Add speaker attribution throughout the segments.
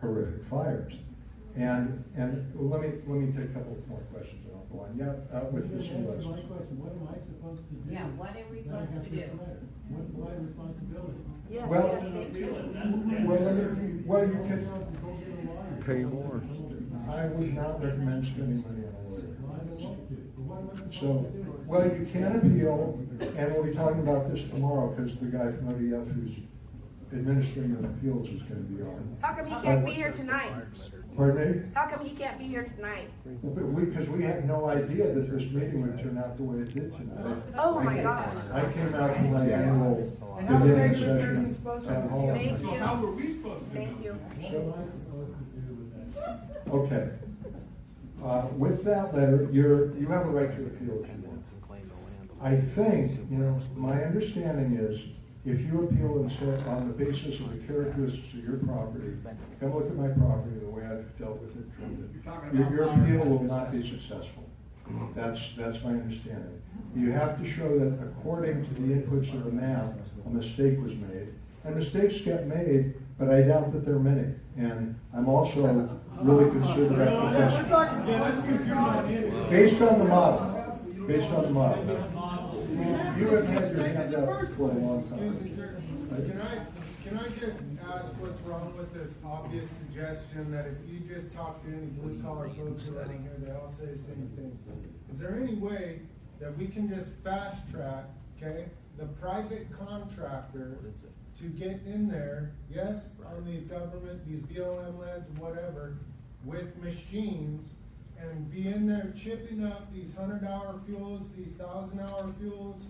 Speaker 1: horrific fires. And, and let me, let me take a couple more questions and I'll go on. Yeah, uh, with this
Speaker 2: That's my
Speaker 1: election.
Speaker 2: question, what am I supposed to do?
Speaker 3: Yeah, what are we
Speaker 2: when I
Speaker 3: supposed
Speaker 2: have
Speaker 3: to
Speaker 2: this
Speaker 3: do?
Speaker 2: letter? What's my responsibility?
Speaker 4: Yes,
Speaker 1: Well-
Speaker 4: yes, thank you.
Speaker 1: Well, let me- well, you could,
Speaker 2: could
Speaker 5: Pay more.
Speaker 1: I would not recommend spending money on a lawyer.
Speaker 2: Well, I don't want to, but what am I supposed to
Speaker 1: So,
Speaker 2: do?
Speaker 1: well, you can appeal, and we'll be talking about this tomorrow, because the guy from ODF who's administering the appeals is gonna be on.
Speaker 4: How come he can't be here tonight?
Speaker 1: Pardon me?
Speaker 4: How come he can't be here tonight?
Speaker 1: But we, because we had no idea that this meeting would turn out the way it did tonight.
Speaker 4: Oh my
Speaker 1: God!
Speaker 4: gosh.
Speaker 1: I came out from my annual
Speaker 6: And how the
Speaker 1: deliberative
Speaker 6: regular person's
Speaker 1: session
Speaker 6: supposed
Speaker 1: at
Speaker 6: to,
Speaker 4: Thank
Speaker 1: home.
Speaker 6: so
Speaker 4: you,
Speaker 6: how were we supposed to know?
Speaker 4: thank you.
Speaker 2: What am I supposed to do with that?
Speaker 1: Okay. Uh, with that letter, you're, you have a right to appeal if you want. I think, you know, my understanding is, if you appeal and say on the basis of the characteristics of your property, come look at my property, the way I've dealt with it, treated
Speaker 6: You're
Speaker 1: it,
Speaker 6: talking
Speaker 1: your,
Speaker 6: about
Speaker 1: your
Speaker 6: fire
Speaker 1: appeal will
Speaker 6: hazard
Speaker 1: not be successful. That's, that's my understanding. You have to show that according to the inputs of the map, a mistake was made. And mistakes get made, but I doubt that there are many. And I'm also really concerned about the
Speaker 6: We're talking, yeah, that's because you're not in it.
Speaker 1: Based on the model, based on the model. You have had your hand up for a long
Speaker 7: Excuse me,
Speaker 1: time.
Speaker 7: sir. Can I, can I just ask what's wrong with this obvious suggestion that if you just talk to any blue collar folks around here, they all say the same thing? Is there any way that we can just fast track, okay, the private contractor to get in there, yes, on these government, these BLM lands, whatever, with machines and be in there chipping up these hundred hour fuels, these thousand hour fuels?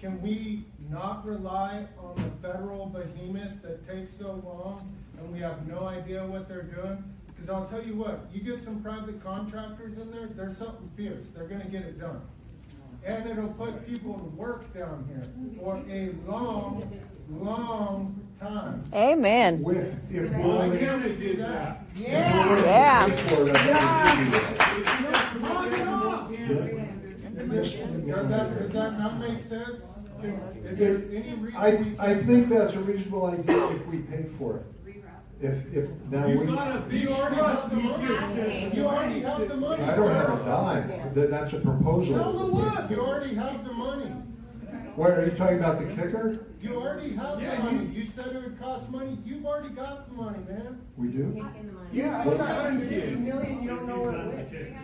Speaker 7: Can we not rely on the federal behemoth that takes so long and we have no idea what they're doing? Cause I'll tell you what, you get some private contractors in there, there's something fierce, they're gonna get it done. And it'll put people to work down here for a long, long time.
Speaker 8: Amen.
Speaker 1: With, if
Speaker 6: Well, the
Speaker 1: willing. if
Speaker 6: county did that.
Speaker 1: willing to
Speaker 8: Yeah.
Speaker 1: pay for it, I think we should do that.
Speaker 7: Does that, does that not make sense? Can- Is there any reason?
Speaker 1: I,
Speaker 7: we
Speaker 1: I
Speaker 7: can't-
Speaker 1: think that's a reasonable idea if we pay for it. If, if, now
Speaker 6: You
Speaker 1: we,
Speaker 6: gotta
Speaker 1: I
Speaker 6: be
Speaker 7: You already
Speaker 6: trust
Speaker 7: have the
Speaker 6: me.
Speaker 7: money, you already have the money.
Speaker 1: don't
Speaker 7: sir.
Speaker 1: have a dime, That- that's a proposal.
Speaker 7: You already have the money,
Speaker 1: What, are you talking about the kicker?
Speaker 7: you already have the
Speaker 6: Yeah,
Speaker 7: money, you said it would cost money, you've already got the money, man.
Speaker 1: We do?
Speaker 6: Yeah, it's a hundred and fifty.
Speaker 2: You don't know what.
Speaker 7: Hey,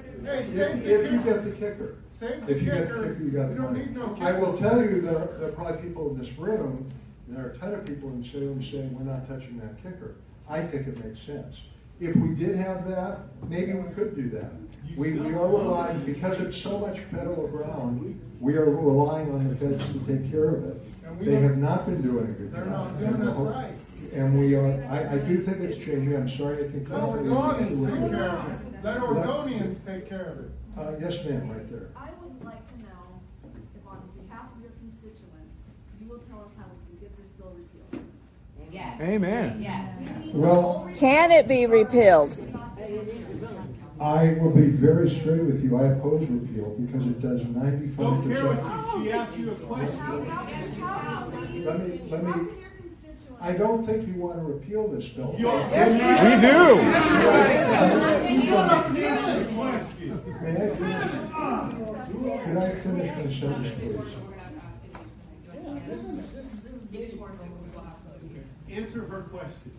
Speaker 7: save
Speaker 1: If,
Speaker 7: the
Speaker 1: if you get the
Speaker 7: kicker,
Speaker 1: kicker.
Speaker 7: save the
Speaker 1: If you get the
Speaker 7: kicker,
Speaker 1: kicker, you
Speaker 7: you
Speaker 1: got the
Speaker 7: don't
Speaker 1: money.
Speaker 7: need no kicker.
Speaker 1: I will tell you, there, there are probably people in this room, and there are a ton of people in Salem saying, we're not touching that kicker. I think it makes sense. If we did have that, maybe we could do that. We, we are relying, because it's so much federal ground, we are relying on the feds to take care of
Speaker 7: And
Speaker 1: it.
Speaker 7: we
Speaker 1: They
Speaker 7: don't-
Speaker 1: have not been doing a good job.
Speaker 7: They're not doing us right.
Speaker 1: And we are, I, I do think it's changing, I'm sorry, I think.
Speaker 7: Let Oregonians take care of it, let Oregonians take care of it.
Speaker 1: Uh, yes, ma'am, right there.
Speaker 9: I would like to know if on behalf of your constituents, you will tell us how we can get this bill repealed.
Speaker 3: Yes.
Speaker 5: Amen.
Speaker 3: Yes.
Speaker 1: Well,
Speaker 8: Can it be repealed?
Speaker 1: I will be very straight with you, I oppose repeal because it does ninety-five
Speaker 6: Don't care
Speaker 1: percent.
Speaker 6: what, she asked you a question.
Speaker 9: How can you-
Speaker 1: Let me- let me-
Speaker 9: How can your constituents?
Speaker 1: I don't think you want to repeal this bill.
Speaker 6: You are-
Speaker 5: We do.
Speaker 6: Ask a question.
Speaker 1: May I finish? Can I finish my sentence, please?
Speaker 6: Answer her question.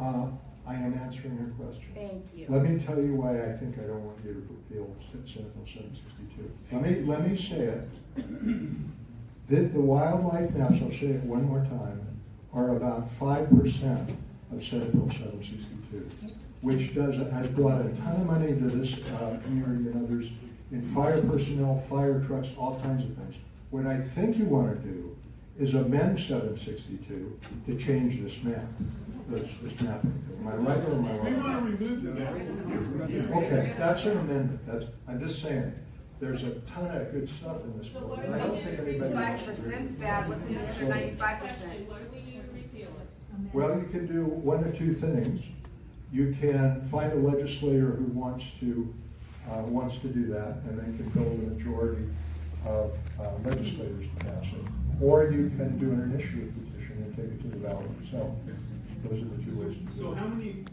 Speaker 1: Uh, I am answering her question.
Speaker 4: Thank you.
Speaker 1: Let me tell you why I think I don't want you to repeal Senate Bill seven sixty-two. Let me, let me say it. That the wildlife maps, I'll say it one more time, are about five percent of Senate Bill seven sixty-two, which does, has brought a ton of money to this, uh, community and others in fire personnel, fire trucks, all kinds of things. What I think you wanna do is amend seven sixty-two to change this map, this, this map. Am I right or am I
Speaker 6: We
Speaker 1: wrong?
Speaker 6: wanna remove the map.
Speaker 1: Okay, that's an amendment, that's, I'm just saying, there's a ton of good stuff in this bill, and I don't think anybody
Speaker 4: Five
Speaker 1: wants to
Speaker 4: percent's
Speaker 1: do
Speaker 4: bad, what's in the other ninety-five percent?
Speaker 1: it. Well, you can do one or two things. You can find a legislator who wants to, uh, wants to do that, and then can build a majority of uh, legislators to pass it. Or you can do an initiative petition and take it to the ballot yourself. Those are the two ways to do it.
Speaker 6: So how many